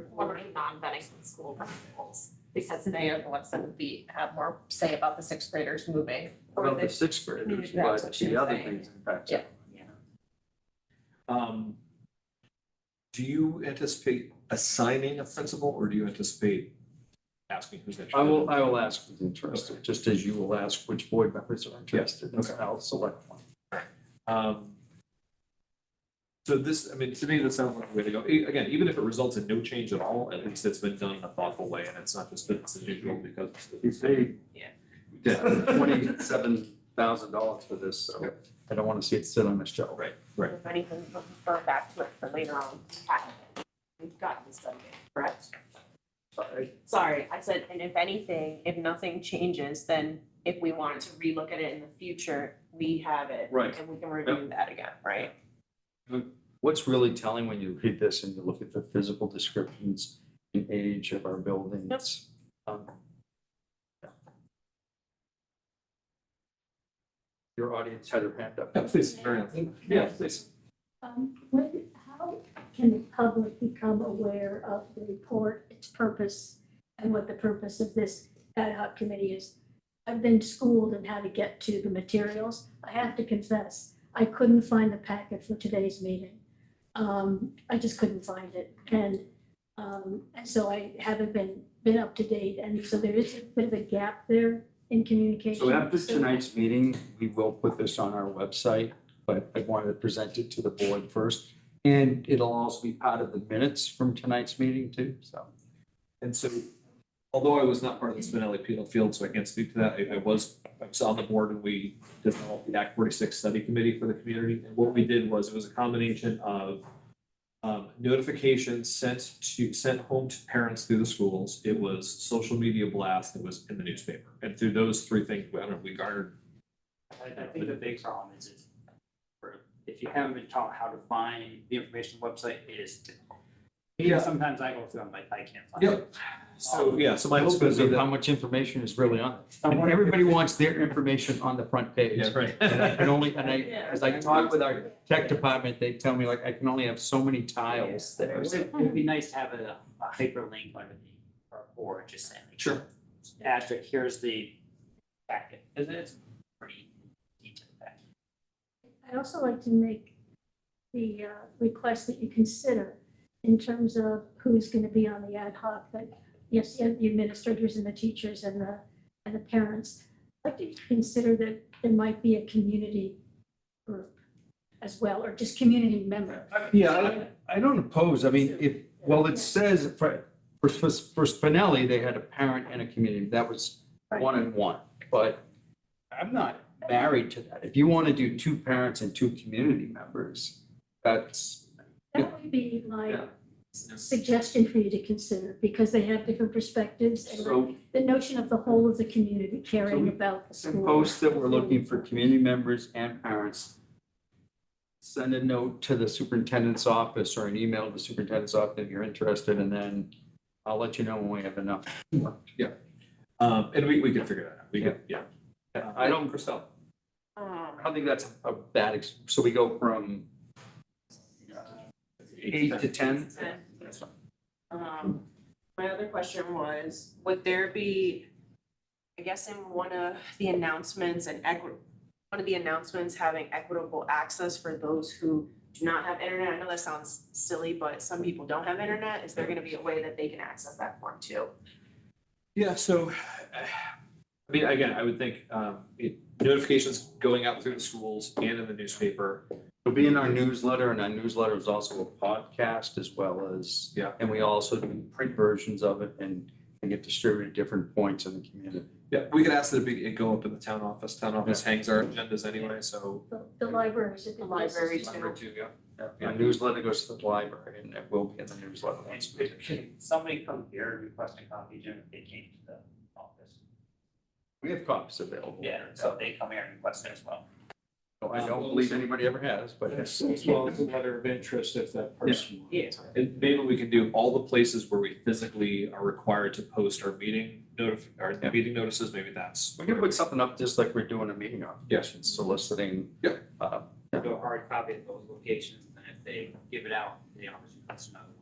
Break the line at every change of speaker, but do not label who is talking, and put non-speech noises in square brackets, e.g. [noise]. supporting non-Bennington school principals because they are the ones that would be, have more say about the sixth graders moving. or
about
the-
the sixth
community,
graders,
that's
but
what she
the
was
other
saying.
things impact
Yeah.
everyone. Um,
Do you anticipate assigning a principal or do you anticipate asking who's interested?
I will, I will ask who's interested, just as you will ask which board members are interested, and
okay.
I'll select one.
Um, So this, I mean, to me, this sounds like the way to go. E- Again, even if it results in no change at all, at least it's been done in a thoughtful way and it's not just business as usual because.
You paid.
Yeah.
Twenty-seven thousand dollars for this, so I don't want to see it sit on a shelf.
Right.
If anything, we'll refer back to it for later on. We've gotten this done, correct?
I-
Sorry, I said, and if anything, if nothing changes, then if we wanted to relook at it in the future, we have it.
Right.
And we can review that again, right?
What's really telling when you read this and you look at the physical descriptions and age of our buildings? um, yeah. Your audience had their hand up.
[laughs] Yeah, Please, Marianne. Yeah, please.
Um, when, how can the public become aware of the report, its purpose, and what the purpose of this ad hoc committee is? I've been schooled in how to get to the materials. I have to confess, I couldn't find the packet for today's meeting. Um, I just couldn't find it, and, um, and so I haven't been, been up to date, and so there is a bit of a gap there in communication.
So after tonight's meeting, we will put this on our website, but I wanted to present it to the board first. And it'll also be part of the minutes from tonight's meeting too, so.
And so, although I was not part of the Spinelli Peel Field, so I can't speak to that, I, I was, I was on the board and we developed the Act forty-six study committee for the community. And what we did was, it was a combination of um, notifications sent to, sent home to parents through the schools. It was social media blast, it was in the newspaper. And through those three things, I don't know, we garnered,
I, I think the big problem is, is for- if you haven't been taught how to find the information on the website, it is difficult.
Yeah.
Because sometimes I go through, I'm like, I can't find
Yep.
it.
so, yeah, so my
That's
hope is
because of how
that.
much information is really on it. And everybody wants their information on the front page.
[laughs] Yeah, right.
And I [laughs] can only, and I, as I talk with our tech department, they tell me like, I can only have so many tiles there.
It would- It'd be nice to have a, a hyperlink under the, or, or just saying. like,
Sure.
Asterisk, here's the packet, because it's pretty detailed packet.
I'd also like to make the uh, request that you consider in terms of who's going to be on the ad hoc, that, yes, you have the administrators and the teachers and the, and the parents. I'd like to consider that there might be a community group as well, or just community members.
Yeah, I, I don't oppose, I mean, if, well, it says for, for, for for Spinelli, they had a parent and a community, that was one and one, but I'm not married to that. If you want to do two parents and two community members, that's,
That would be my
Yeah.
suggestion for you to consider, because they have different perspectives and
so
the notion of the whole of the community caring
we
about the school.
suppose that we're looking for community members and parents. Send a note to the superintendent's office or an email to the superintendent's office if you're interested, and then I'll let you know when we have enough.
Um, and we, we could figure that out. We could, yeah.
I don't, Christelle. I
Um,
don't think that's a bad, ex- so we go from eight to ten? That's fine.
Um, my other question was, would there be, I guess in one of the announcements and equi- one of the announcements having equitable access for those who do not have internet, I know that sounds silly, but some people don't have internet, is there gonna be a way that they can access that form too?
Yeah, so, [sighs] I mean, again, I would think, um, it- notifications going out through the schools and in the newspaper.
It'll be in our newsletter, and our newsletter is also a podcast as well as.
Yeah.
And we also do print versions of it and they get distributed at different points in the community.
Yeah, we could ask that it be, it go up in the town office. Town office hangs our agendas anyway, so.
The- The libraries. are
The library
places to-
Number two, yeah.
Our newsletter goes to the library and it will be in the newsletter once. we-
And Can somebody come here and request a copy, Jim, if they came to the office?
We have copies available.
Yeah, so they come here and request it as well.
So I don't believe anybody ever has, but it's.
As well as a letter of interest if that person. wants.
Yeah.
And maybe we can do all the places where we physically are required to post our meeting notif, our
Yeah.
meeting notices, maybe that's.
We can put something up just like we're doing a meeting application, soliciting.
Yeah.
uh,
do a hard copy at those locations, and if they give it out, the office requests another